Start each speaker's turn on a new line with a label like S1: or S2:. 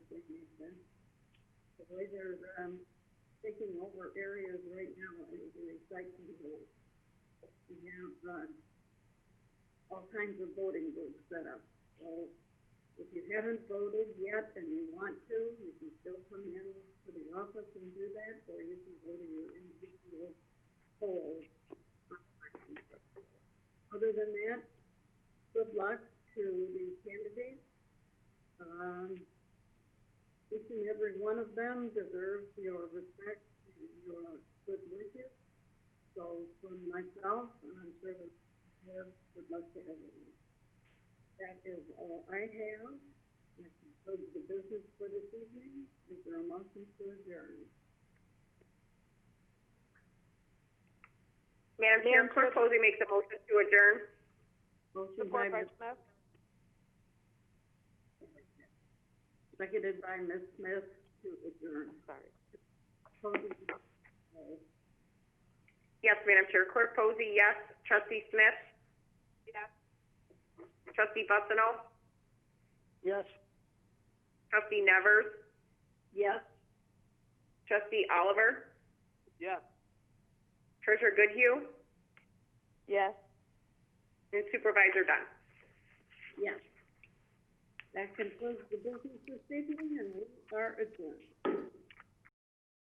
S1: the way they're, um, taking over areas right now and doing recycling holes. We have, uh, all kinds of voting booths set up, so if you haven't voted yet and you want to, you can still come in to the office and do that, or you can go to your individual poll. Other than that, good luck to the candidates. Um, each and every one of them deserves your respect and your good wishes. So from myself, and I'm sure the mayor would love to have you. That is all I have. That concludes the business for this evening. Is there a motion to adjourn?
S2: Madam Chair, Clerk Posey makes a motion to adjourn.
S1: Motion by, Ms-
S2: Smith.
S1: seconded by Ms. Smith to adjourn.
S2: Sorry.
S1: Posey, uh,
S2: Yes, Madam Chair, Clerk Posey, yes. Trustee Smith? Yes. Trustee Bucino?
S3: Yes.
S2: Trustee Nevers?
S1: Yes.
S2: Trustee Oliver?
S3: Yes.
S2: Treasurer Goodhue?
S3: Yes.
S2: And Supervisor Dunn?
S1: Yes. That concludes the business this evening, and we are adjourned.